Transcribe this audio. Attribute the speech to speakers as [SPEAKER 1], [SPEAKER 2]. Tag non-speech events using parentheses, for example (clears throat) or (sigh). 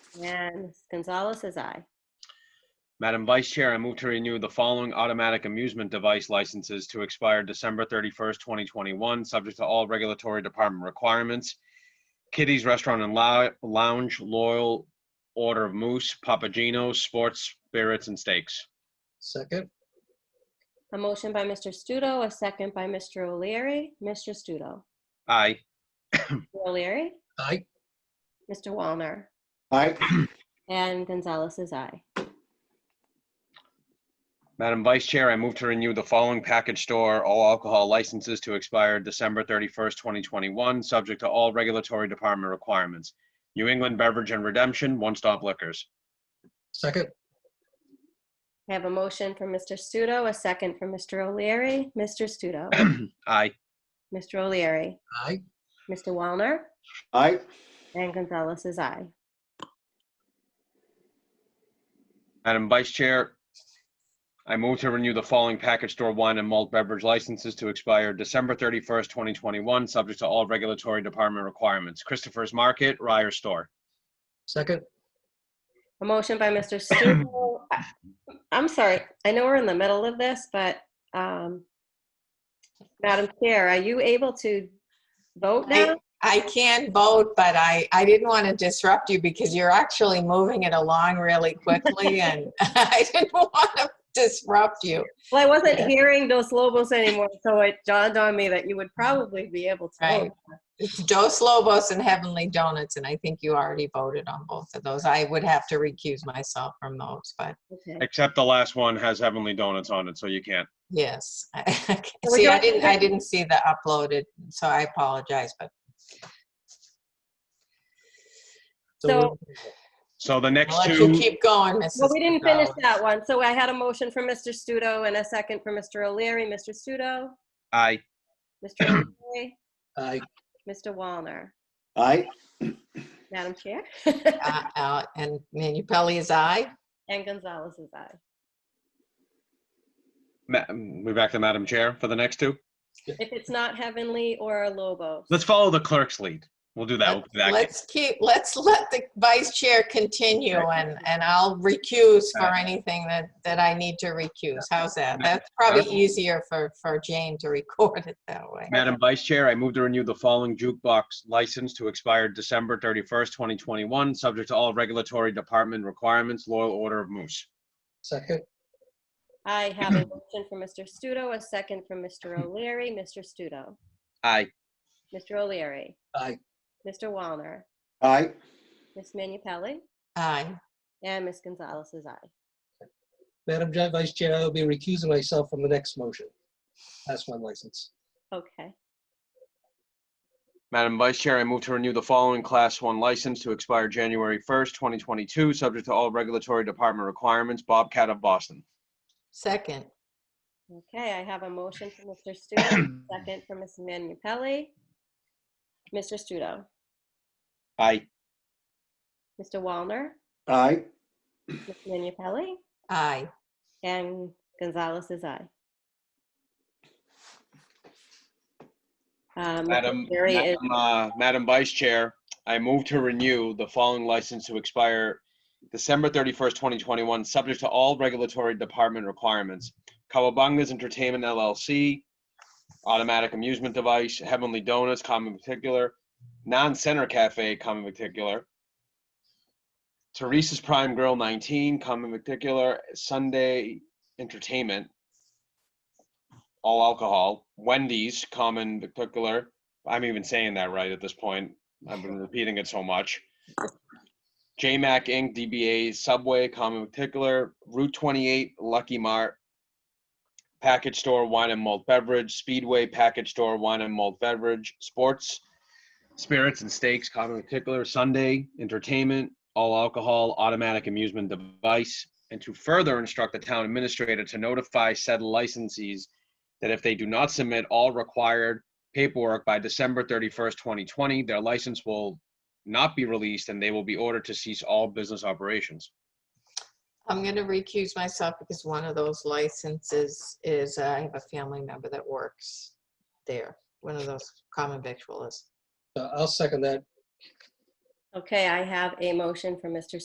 [SPEAKER 1] And Ms. Gonzalez says aye.
[SPEAKER 2] Madam Vice Chair, I move to renew the following automatic amusement device licenses to expire December 31st, 2021, subject to all regulatory department requirements. Kitty's Restaurant and Lou- Lounge, Loyal Order of Moose, Papagino's, Sports, Spirits, and Steaks.
[SPEAKER 3] second,
[SPEAKER 1] A motion by Mr. Studo, a second by Mr. O'Leary. Mr. Studo.
[SPEAKER 2] Aye.
[SPEAKER 1] Mr. O'Leary.
[SPEAKER 3] aye,
[SPEAKER 1] Mr. Walner.
[SPEAKER 4] aye,
[SPEAKER 1] And Gonzalez says aye.
[SPEAKER 2] Madam Vice Chair, I move to renew the following package store all alcohol licenses to expire December 31st, 2021, subject to all regulatory department requirements. New England Beverage and Redemption, One Stop Liquors.
[SPEAKER 3] second,
[SPEAKER 1] I have a motion from Mr. Studo, a second from Mr. O'Leary. Mr. Studo.
[SPEAKER 2] Aye.
[SPEAKER 1] Mr. O'Leary.
[SPEAKER 3] aye,
[SPEAKER 1] Mr. Walner.
[SPEAKER 4] aye,
[SPEAKER 1] And Gonzalez says aye.
[SPEAKER 2] Madam Vice Chair, I move to renew the following package store wine and malt beverage licenses to expire December 31st, 2021, subject to all regulatory department requirements. Christopher's Market, Ryer Store.
[SPEAKER 3] second,
[SPEAKER 1] A motion by Mr. Studo. I- I'm sorry, I know we're in the middle of this, but um, Madam Chair, are you able to vote now?
[SPEAKER 5] I can vote, but I, I didn't want to disrupt you because you're actually moving it along really quickly
[SPEAKER 1] (laughs)
[SPEAKER 5] and (laughs) I didn't want to disrupt you.
[SPEAKER 1] Well, I wasn't
[SPEAKER 5] Yeah.
[SPEAKER 1] hearing Dos Lobos anymore, so it dawned on me that you would probably be able to. vote.
[SPEAKER 5] Right. It's Dos Lobos and Heavenly Donuts, and I think you already voted on both of those. I would have to recuse myself from those, but
[SPEAKER 1] Oh, Okay.
[SPEAKER 2] Except the last one has Heavenly Donuts on it, so you can't.
[SPEAKER 5] yes. (laughs)
[SPEAKER 1] Would
[SPEAKER 5] See,
[SPEAKER 1] you
[SPEAKER 5] I
[SPEAKER 1] like to
[SPEAKER 5] didn't, I
[SPEAKER 1] vote?
[SPEAKER 5] didn't see the uploaded, so I apologize, but
[SPEAKER 3] so,
[SPEAKER 2] So the next
[SPEAKER 5] I'll let you
[SPEAKER 2] two,
[SPEAKER 5] keep going, Mrs.
[SPEAKER 1] Well, we didn't finish
[SPEAKER 5] Gonzalez.
[SPEAKER 1] that one, so I had a motion from Mr. Studo and a second from Mr. O'Leary. Mr. Studo,
[SPEAKER 2] aye.
[SPEAKER 5] (clears throat)
[SPEAKER 1] Mr. O'Leary,
[SPEAKER 3] aye,
[SPEAKER 1] Mr. Walner.
[SPEAKER 4] aye,
[SPEAKER 1] Madam Chair?
[SPEAKER 5] Uh, uh, And Minipelli is aye?
[SPEAKER 1] (laughs) And Gonzalez is aye.
[SPEAKER 2] Ma- We back to Madam Chair for the next two.
[SPEAKER 1] If it's not Heavenly or Lobos.
[SPEAKER 2] Let's follow the clerk's lead. We'll do that. We'll do that.
[SPEAKER 5] Let's keep, let's let the vice chair continue and, and I'll recuse for anything that, that I need to recuse. How's that? That's probably easier for, for Jane to record it that way.
[SPEAKER 2] Madam Vice Chair, I move to renew the following jukebox license to expire December 31st, 2021, subject to all regulatory department requirements, Loyal Order of Moose.
[SPEAKER 3] second,
[SPEAKER 1] I have a motion from Mr. Studo, a second from Mr. O'Leary. Mr. Studo.
[SPEAKER 2] Aye.
[SPEAKER 1] Mr. O'Leary.
[SPEAKER 3] aye,
[SPEAKER 1] Mr. Walner.
[SPEAKER 4] aye,
[SPEAKER 1] Ms. Minipelli.
[SPEAKER 5] Aye.
[SPEAKER 1] And Ms. Gonzalez is aye.
[SPEAKER 3] Madam Ju- Vice Chair, I will be recusing myself from the next motion. That's one license,
[SPEAKER 1] Okay.
[SPEAKER 2] Madam Vice Chair, I move to renew the following Class 1 license to expire January 1st, 2022, subject to all regulatory department requirements, Bobcat of Boston.
[SPEAKER 5] Second.
[SPEAKER 1] Okay, I have a motion from Mr. Studo, a second from Ms. Minipelli. Mr. Studo.
[SPEAKER 2] Aye.
[SPEAKER 1] Mr. Walner.
[SPEAKER 4] aye,
[SPEAKER 1] Ms. Minipelli.
[SPEAKER 5] Aye.
[SPEAKER 1] And Gonzalez is aye. Um, Mr.
[SPEAKER 2] Madam,
[SPEAKER 1] O'Leary is-
[SPEAKER 2] Madam, uh, Madam Vice Chair, I move to renew the following license to expire December 31st, 2021, subject to all regulatory department requirements. Cowabanga's Entertainment LLC, Automatic Amusement Device, Heavenly Donuts, common particular, Non-Center Cafe, common particular, Teresa's Prime Grill 19, common particular, Sunday Entertainment, all alcohol, Wendy's, common particular, I'm even saying that right at this point. I've been repeating it so much. JMac Inc., DBA Subway, Common Particular, Route 28, Lucky Mart, Package Store Wine and Malt Beverage, Speedway Package Store Wine and Malt Beverage, Sports, Spirits and Steaks, Common Particular, Sunday Entertainment, All Alcohol, Automatic Amusement Device, and to further instruct the town administrator to notify said licensees that if they do not submit all required paperwork by December 31st, 2020. Their license will not be released and they will be ordered to cease all business operations.
[SPEAKER 5] I'm going to recuse myself because one of those licenses is, uh, I have a family member that works there, one of those common victualists.
[SPEAKER 3] Uh, I'll second that
[SPEAKER 1] Okay, I have a motion from Mr.